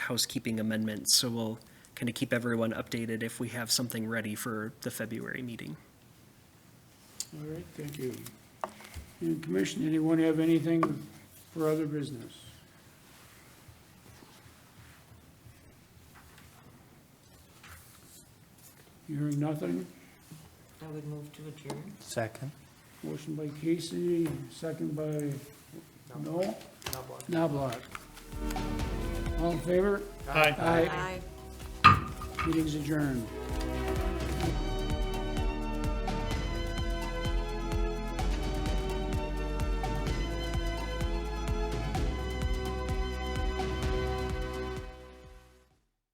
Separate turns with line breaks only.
housekeeping amendments, so we'll kind of keep everyone updated if we have something ready for the February meeting.
All right, thank you. And Commission, anyone have anything for other business? Hearing nothing,
I would move to adjourn.
Second.
motion by Casey, second by Noel, Knobloch. All in favor? Aye. Meeting's adjourned.